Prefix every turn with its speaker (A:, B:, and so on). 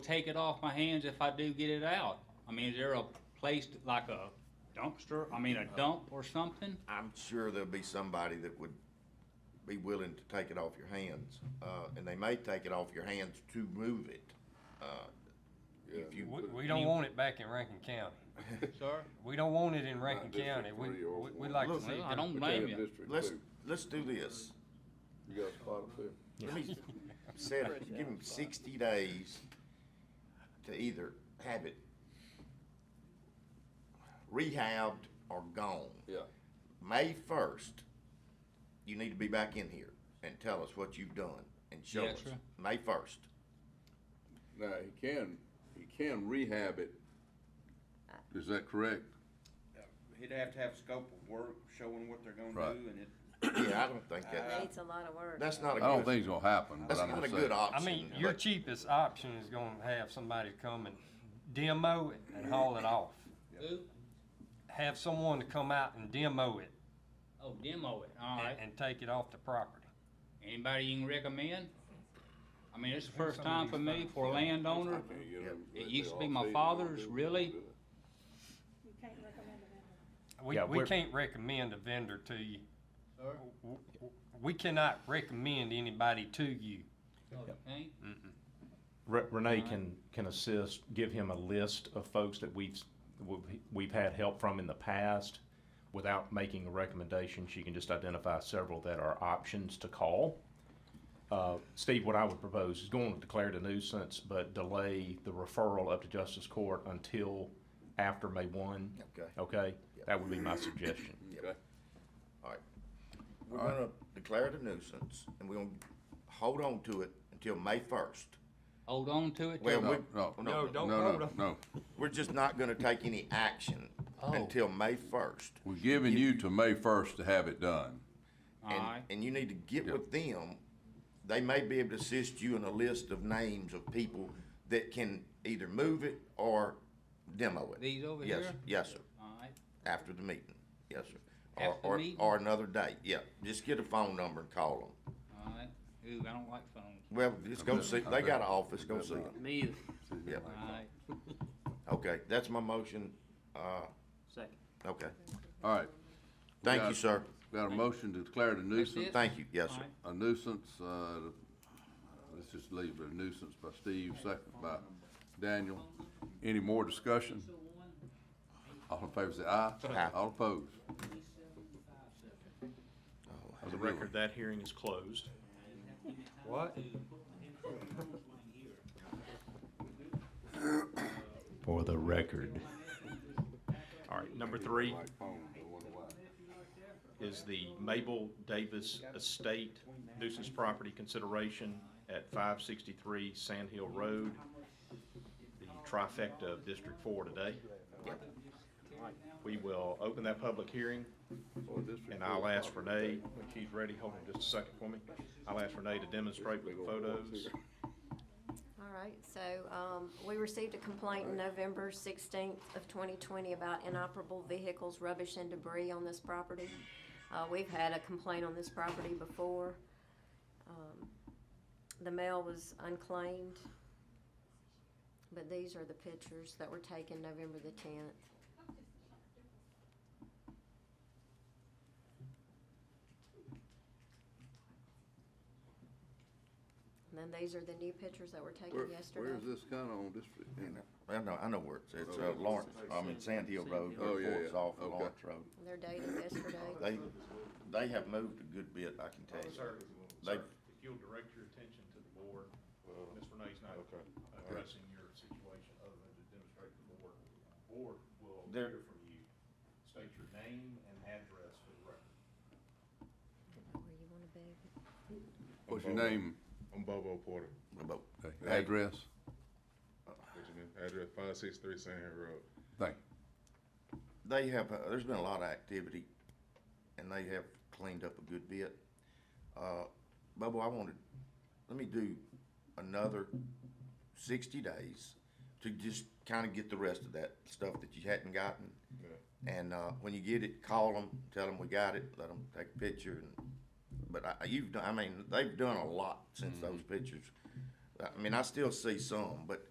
A: take it off my hands if I do get it out? I mean, is there a place to- like a dumpster, I mean, a
B: Uh-huh.
A: dump or something?
B: I'm sure there'll be somebody that would be willing to take it off your hands, uh, and they may take it off your hands to move it. uh, If you,
C: We, we don't want it back in Rankin County.
A: Sir?
C: We don't want it in Rankin
D: Not District
C: County. We,
D: three or
C: we- we
D: one.
C: like to
B: Look,
C: see.
A: I
C: it
A: don't
D: But
A: blame
D: they're
A: you.
D: District
B: let's,
D: two.
B: let's do this.
D: You got a spot up there?
B: Let me set, it- give them sixty days to either have it rehabbed or gone.
D: Yeah.
B: May first, you need to be back in here and tell us what you've done and show
A: Yes,
B: us.
A: sir.
B: May first.
D: Now, he can, he can rehab it. Is that correct?
E: He'd have to have scope of work showing what they're gonna
D: Right.
E: do and it,
B: Yeah, I don't think that,
F: It's a lot of work.
B: that's not
D: I
B: a
D: don't
B: good,
D: think it's gonna happen, but
B: that's
D: I'm
B: not a
D: just
B: good
D: saying.
C: I
B: option.
C: mean, your
B: but-
C: cheapest option is gonna have somebody come and demo it and haul it off.
A: Who?
C: Have someone to come out and demo it
A: Oh, demo it, all
C: and,
A: right.
C: and take it off the property.
A: Anybody you can recommend? I mean, it's the
C: Who's
A: first
C: some of
A: time
C: these
A: for me,
C: folks?
A: for a landowner.
D: I can't get them-
A: It
D: they-
A: used
D: they
A: to be
D: all
A: my
D: say they don't
A: father's,
D: do it,
A: really?
D: they don't do
G: You can't recommend it.
C: We,
H: Yeah,
C: we
H: we're-
C: can't recommend a vendor to you.
A: Sir?
C: W- w- We cannot recommend anybody to you.
A: Okay,
H: Re- Renee can, can assist, give him a list of folks that we've, s- we've- we've had help from in the past. Without making a recommendation, she can just identify several that are options to call. Uh, Steve, what I would propose is going to declare it a nuisance, but delay the referral up to justice court until after May one.
B: Okay.
H: Okay? That would be my suggestion.
D: it. Okay.
B: We're gonna declare it a nuisance, and we're gonna hold on to it until May first.
A: hold on to it.
B: Well,
A: till-
B: we,
D: no,
C: No,
B: no,
C: don't
D: No,
C: hold
D: no,
C: on.
D: no.
B: we're just not gonna take any action
A: Oh.
B: until May first.
D: We're giving you to May first to have it done.
A: All
B: And,
A: right,
B: and you need to get
D: Yeah.
B: with them. They may be able to assist you in a list of names of people that can either move it or demo it.
A: These over
B: Yes,
A: here?
B: Yes, sir,
A: all right.
B: after the meeting, yes, sir. Or,
A: After the
B: or,
A: meeting?
B: or another date, yeah, just get a phone number and call them.
A: All right. Ooh, I don't like phones.
B: Well, just go
D: Okay.
B: see, they got an office, go see them,
I: Me either.
B: yeah.
A: All right.
B: Okay, that's my motion, uh,
I: Second.
B: okay.
D: All right,
B: Thank
D: got
B: you,
D: it.
B: sir.
D: got a motion to declare it a nuisance,
A: it?
B: Thank you, yes, sir.
A: All right.
D: a nuisance, uh, let's just leave it a nuisance by Steve, second by Daniel. Any more discussion? All in favor say aye.
B: Aye.
D: All opposed?
H: For the record, that hearing is closed.
C: What?
H: For the record. All right, number three.
D: Like phones, I wonder why.
H: is the Mabel Davis Estate nuisance property consideration at five sixty-three Sand Hill Road. The trifecta of District Four today. We will open that public hearing, and I'll ask Renee, when she's ready, hold on just a second for me. I'll ask Renee to demonstrate with the photos.
F: All right, so, um, we received a complaint November sixteenth of twenty twenty about inoperable vehicles, rubbish and debris on this property. Uh, we've had a complaint on this property before. Um, The mail was unclaimed. But these are the pictures that were taken November the tenth. And then these are the new pictures that were
D: Where,
F: taken yesterday.
D: where's this kinda on district?
B: Oh, I know, I know where it's, it's uh, Lawrence, I mean, Sand Hill Road,
D: Oh, yeah,
B: before it's
D: yeah.
B: off of
D: Okay.
B: Lawrence Road.
F: They're dated yesterday.
B: They, they have moved a good bit, I can tell you. They,
H: if you'll direct your attention to the board, Ms. Renee's not addressing your situation other than to demonstrate to the board. Board will
B: There-
H: hear from you, state your name and address for the record.
F: Where you wanna be.
D: What's your name,
J: I'm Bobo Porter.
B: about, Hey.
D: address?
J: What's your name? Address five six three Sand Hill Road.
D: Thank
B: they have, uh, there's been a lot of activity, and they have cleaned up a good bit. Uh, Bubba, I wanted, let me do another sixty days to just kinda get the rest of that stuff that you hadn't gotten. And, uh, when you get it, call them, tell them we got it, let them take a picture, and, but I, you've done, I mean, they've done a lot since those pictures. I mean, I still see some, but